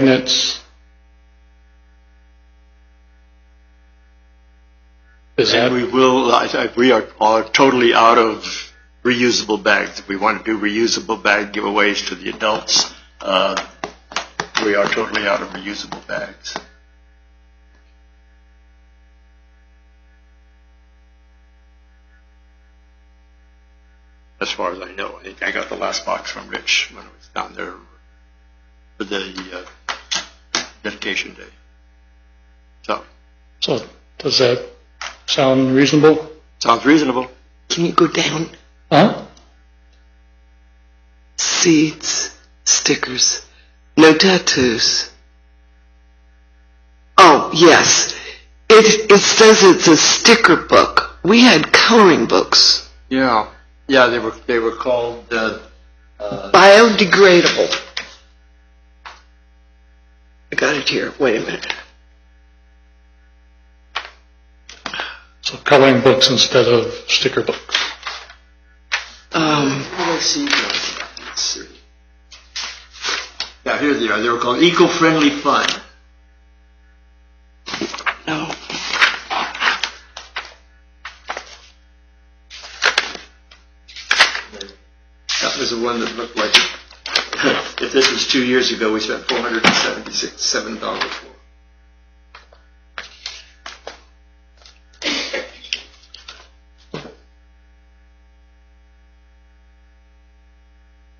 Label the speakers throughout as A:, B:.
A: magnets. Is that,
B: And we will, I, I, we are, are totally out of reusable bags. We want to do reusable bag giveaways to the adults. Uh, we are totally out of reusable bags. As far as I know, I think I got the last box from Rich when I was down there for the, uh, dedication day. So,
A: so does that sound reasonable?
B: sounds reasonable.
C: Can you go down?
A: Huh?
C: Seeds, stickers, no tattoos. Oh, yes. It, it says it's a sticker book. We had coloring books.
B: Yeah, yeah, they were they were called uh, uh,
C: Biodegradable. I got it here. Wait a minute.
A: So coloring books instead of sticker books.
C: Um,
B: yeah. Here they are. They were called eco-friendly fun.
C: no.
B: That was the one that looked like. It. if this was two years ago, we spent four hundred and seventy-six seven dollars for.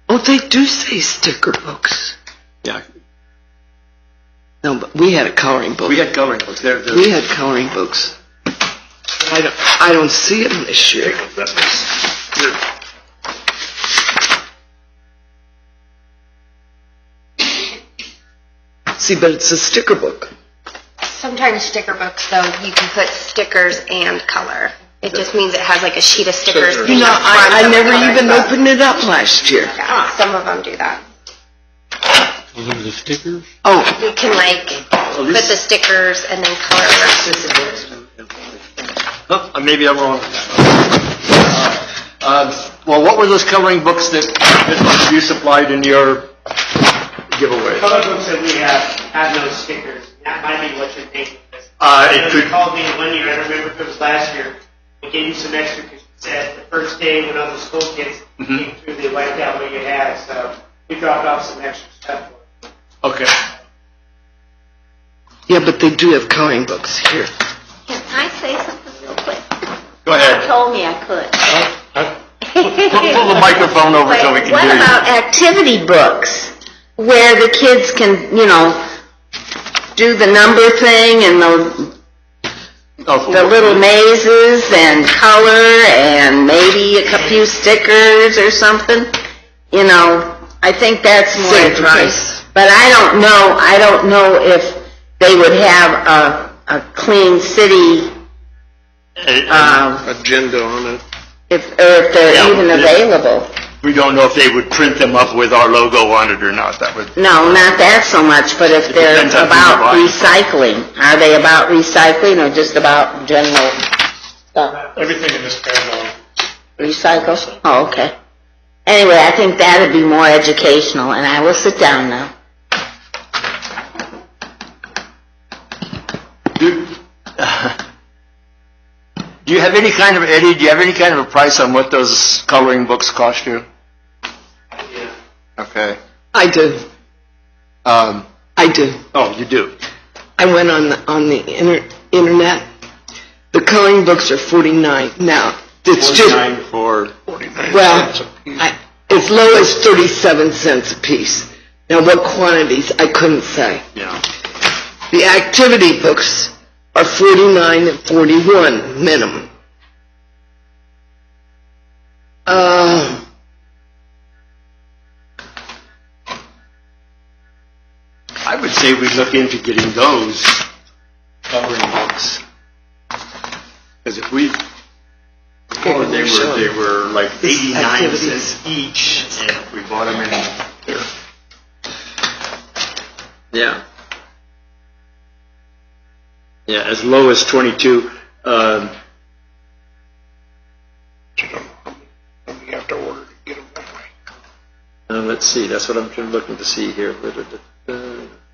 C: Oh, they do say sticker books.
B: Yeah,
C: No, but we had a coloring book.
B: we had coloring books. There, there.
C: We had coloring books. I don't, I don't see them this year.
B: That was- here.
C: See, but it's a sticker book.
D: Sometimes sticker books, though, you can put stickers and color. It just means it has like a sheet of stickers.
B: Stickers.
D: in
C: You know,
D: the front
C: I, I
D: of the
C: never
D: coloring
C: even
D: book.
C: opened it up last year.
D: Yeah, some of them do that.
C: Oh,
D: You can like put
B: this-
D: the stickers and then color around.
B: Oh, maybe I'm wrong. Uh, well, what were those coloring books that that you supplied in your giveaway?
E: color books that we have have no stickers. That might be what you're thinking.
B: Uh, it
E: Because
B: could-
E: You called me one year, I don't remember if it was last year, we gave you some extra because you said the first day when all the school kids came through, they wiped out what you had, so we dropped off some extra stuff. for you.
B: Okay.
C: yeah, but they do have coloring books here.
D: Can I say something real quick?
B: Go ahead.
D: Told me I could.
B: Pull, pull the microphone over so we can
D: What
B: hear you.
D: about activity books where the kids can, you know, do the number thing and the,
B: Oh,
D: the little mazes and color and maybe a cou- few stickers or something? You know, I think that's more
C: Same price.
D: advice. But I don't know, I don't know if they would have a, a clean city, um,
B: Agenda on it.
D: if, or if
B: Yeah,
D: they're even
B: yeah.
D: available.
B: We don't know if they would print them up with our logo on it or not. That would.
D: No, not that so much, but if they're
B: depends on who you
D: about
B: buy.
D: recycling, are they about recycling or just about general stuff?
A: Everything in this paragraph.
D: Recycle? Oh, okay. Anyway, I think that'd be more educational, and I will sit down now.
B: Do, do you have any kind of Eddie? Do you have any kind of a price on what those coloring books cost you? Okay.
C: I do.
B: Um,
C: I do.
B: oh, you do.
C: I went on the, on the inter, internet. The coloring books are 49 now. It's just,
B: Nine for forty-nine.
C: well, I, as low as 37 cents a piece. Now, what quantities, I couldn't say.
B: Yeah.
C: The activity books are 49 and 41 minimum. Uh,
B: I would say we look into getting those coloring books. Because if we, before they were, they were like eighty-nine cents each, and if we bought them in. Yeah. Yeah, as low as twenty-two, um. We have to order to get them that way. Uh, let's see, that's what I'm trying- looking to see here. uh,